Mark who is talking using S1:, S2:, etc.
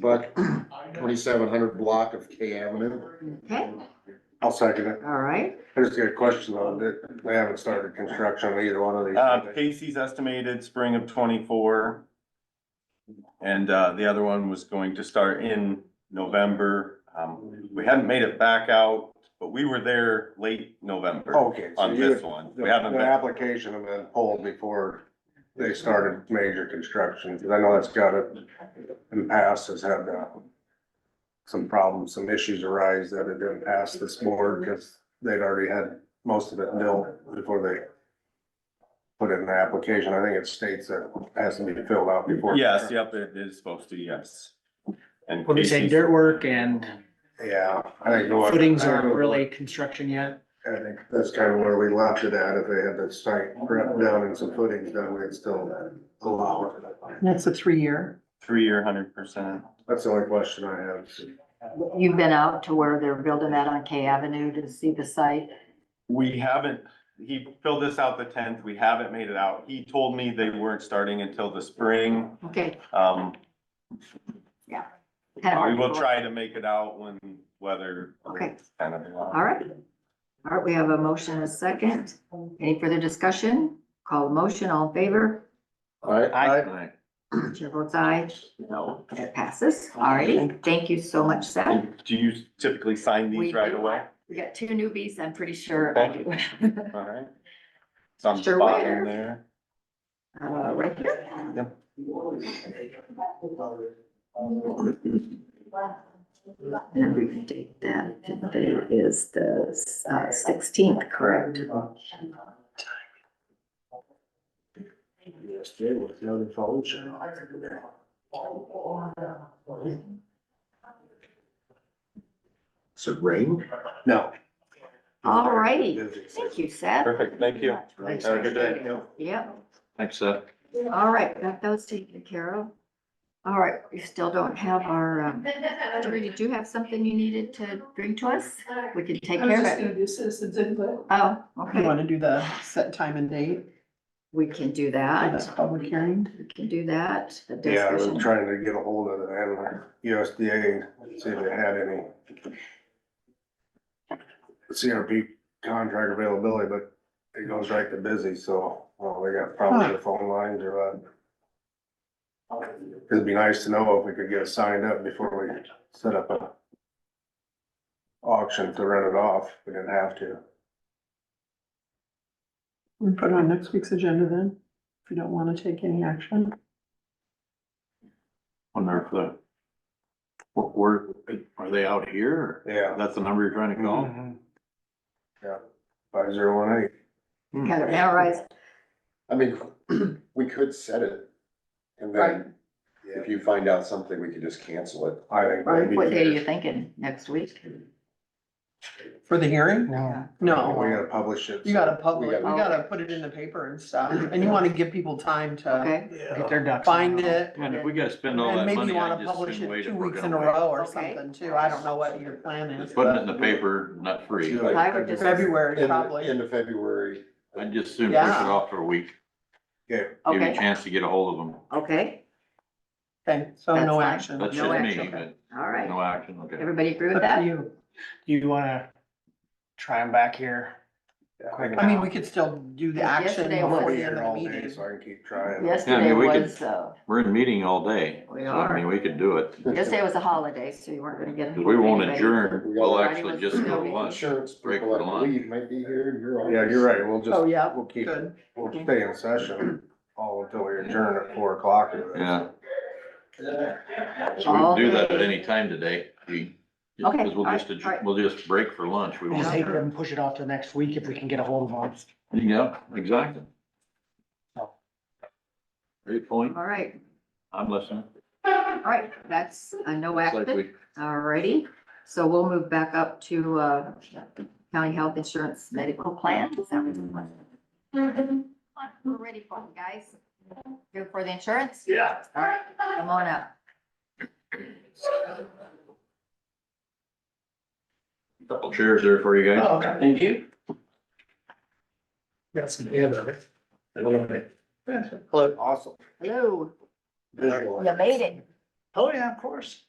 S1: Buck, twenty-seven hundred block of K Avenue.
S2: Okay,
S3: I'll second it.
S2: all right,
S3: I just got a question on it. They haven't started construction on either one of these.
S4: Uh,
S3: have they?
S4: Casey's estimated spring of twenty-four. And, uh, the other one was going to start in November. Um, we hadn't made it back out, but we were there late November
S3: Okay, Oh, so
S4: on
S3: you,
S4: this one.
S3: the,
S4: We haven't
S3: the
S4: been,
S3: application had been pulled before they started major construction, because I know that's got it in the past has had, uh, some problems, some issues arise that it didn't pass this board, because they'd already had most of it built before they put in the application. I think it states that it has to be filled out before.
S4: yes, yep, it is supposed to, yes. And
S5: What do you say,
S4: Casey's-
S5: dirt work and
S3: Yeah, I think. what-
S5: footings aren't really construction yet?
S3: I think that's kind of where we left it at, if they had the site prepped down and some footings done, we'd still allow it.
S2: that's a three-year.
S4: Three-year, hundred percent.
S3: That's the only question I have.
S2: You've been out to where they're building that on K Avenue to see the site?
S4: We haven't, he filled this out the tenth. We haven't made it out. He told me they weren't starting until the spring.
S2: Okay.
S4: Um,
S2: kind of
S4: We will
S2: hardcore.
S4: try to make it out when weather.
S2: Okay.
S4: Kind of.
S2: All right. All right, we have a motion and a second. Any further discussion? Call the motion, all in favor?
S1: I,
S4: I,
S2: Chair votes aye. No, that passes. All righty, thank you so much, Seth.
S4: do you typically sign
S2: We
S4: these right
S2: do.
S4: away?
S2: We got two newbies, I'm pretty sure I do.
S4: All right. Some
S2: Sure
S4: spot
S2: will.
S4: in there.
S2: Uh, right here?
S4: Yep.
S2: And we can date that, today is the uh, sixteenth, correct?
S1: is it rain?
S3: No.
S2: All righty, thank you, Seth.
S4: Perfect, thank you.
S2: Much
S4: Have a good day.
S2: appreciated. Yep,
S4: Thanks, Seth.
S2: all right, got those taken care of. All right, we still don't have our, um, Doreen, did you have something you needed to bring to us? We can take
S6: I was
S2: care of
S6: just
S2: it.
S6: gonna do citizens input.
S2: Oh,
S6: You
S2: okay,
S6: wanna do the set time and date
S2: we can do
S6: for
S2: that.
S6: the public hearing?
S2: We can do that. the
S3: Yeah, I was
S2: discussion.
S3: trying to get a hold of the USDA, see if they had any CRP contract availability, but it goes right to busy, so, well, they got probably the phone lines or what. It'd be nice to know if we could get it signed up before we set up a auction to rent it off. We didn't have to.
S6: We put it on next week's agenda then, if you don't wanna take any action.
S7: Wonder if the, what, where, are they out here?
S3: Yeah.
S7: or That's the number you're trying to call?
S3: Yeah, five zero one eight.
S2: Got it memorized.
S1: I mean, we could set it. And then if you find out something, we could just cancel it.
S3: I think. that'd be
S2: What day are
S3: fair.
S2: you thinking? Next week?
S6: For the hearing?
S2: No.
S3: We
S6: No,
S3: gotta publish it.
S6: you gotta public,
S1: We
S6: you gotta put it in the paper and stuff, and you wanna give people time to
S2: Okay,
S5: Get their ducks. in a
S6: find
S5: row.
S6: it.
S7: And if we gotta spend all
S6: And
S7: that
S6: maybe you
S7: money, I
S6: wanna
S7: just
S6: publish
S7: soon
S6: it
S7: wait if
S6: two
S7: we're
S6: weeks in
S7: gonna
S6: a
S7: wait.
S6: row or
S2: Okay.
S6: something too, I don't know what your plan is.
S7: Putting it in the paper, not free.
S3: Yeah.
S2: I would just-
S6: February
S1: End,
S6: probably,
S1: end of February.
S7: I'd just soon push it
S6: Yeah.
S7: off for a week,
S3: Okay,
S7: give you a
S2: okay,
S7: chance to get a hold of them.
S2: okay,
S6: okay, so
S2: That's
S6: no
S2: fine.
S6: action.
S7: That's
S2: No
S7: just me,
S2: action.
S7: but
S2: all right.
S7: no action, okay.
S2: Everybody agree with
S6: Up to
S2: that?
S6: you.
S5: Do you wanna try them back here? quick
S6: I mean,
S5: now?
S6: we could still do the action
S2: Yesterday
S6: before
S2: was-
S6: the
S3: we
S6: end
S3: here
S6: of the
S3: all day,
S6: meeting.
S3: so I can keep trying.
S2: Yesterday
S7: we could-
S2: was, uh,
S7: We're in meeting all day,
S2: We
S7: so I
S2: are.
S7: mean, we could do it.
S2: yesterday was a holiday, so you weren't gonna get.
S7: We won't
S2: anybody.
S7: adjourn, we'll actually just go to
S2: Okay.
S7: lunch.
S1: Insurance
S7: Break
S1: people,
S7: for
S1: I
S7: lunch.
S1: believe, might be here and you're on.
S3: Yeah, you're right, we'll
S6: Oh,
S3: just,
S6: yeah,
S3: we'll keep,
S6: good.
S3: we'll stay in session all until we adjourn at four o'clock.
S7: Yeah. So
S2: All
S7: we can do that at
S2: day.
S7: any time today. We-
S2: Okay,
S7: Cause we'll
S2: all
S7: just,
S2: right,
S7: adj-
S2: all right.
S7: we'll just break for lunch. We
S5: We Just
S7: won't.
S5: take it
S7: adjourn.
S5: and push it off to next week if we can get a hold of them.
S7: Yeah, exactly. Great point.
S2: All right,
S7: I'm listening.
S2: all right, that's a no
S7: It's like
S2: action.
S7: we-
S2: Alrighty, so we'll move back up to, uh, county health insurance medical plan. Is that what you want? We're ready for it, guys. Go for the insurance? Yeah. Alright, come on up.
S7: Couple chairs there for you guys.
S5: Okay, thank you. Got some air of it. A little bit.
S3: Awesome.
S2: Hello,
S3: Visualize.
S2: you made it.
S5: Oh, yeah, of course.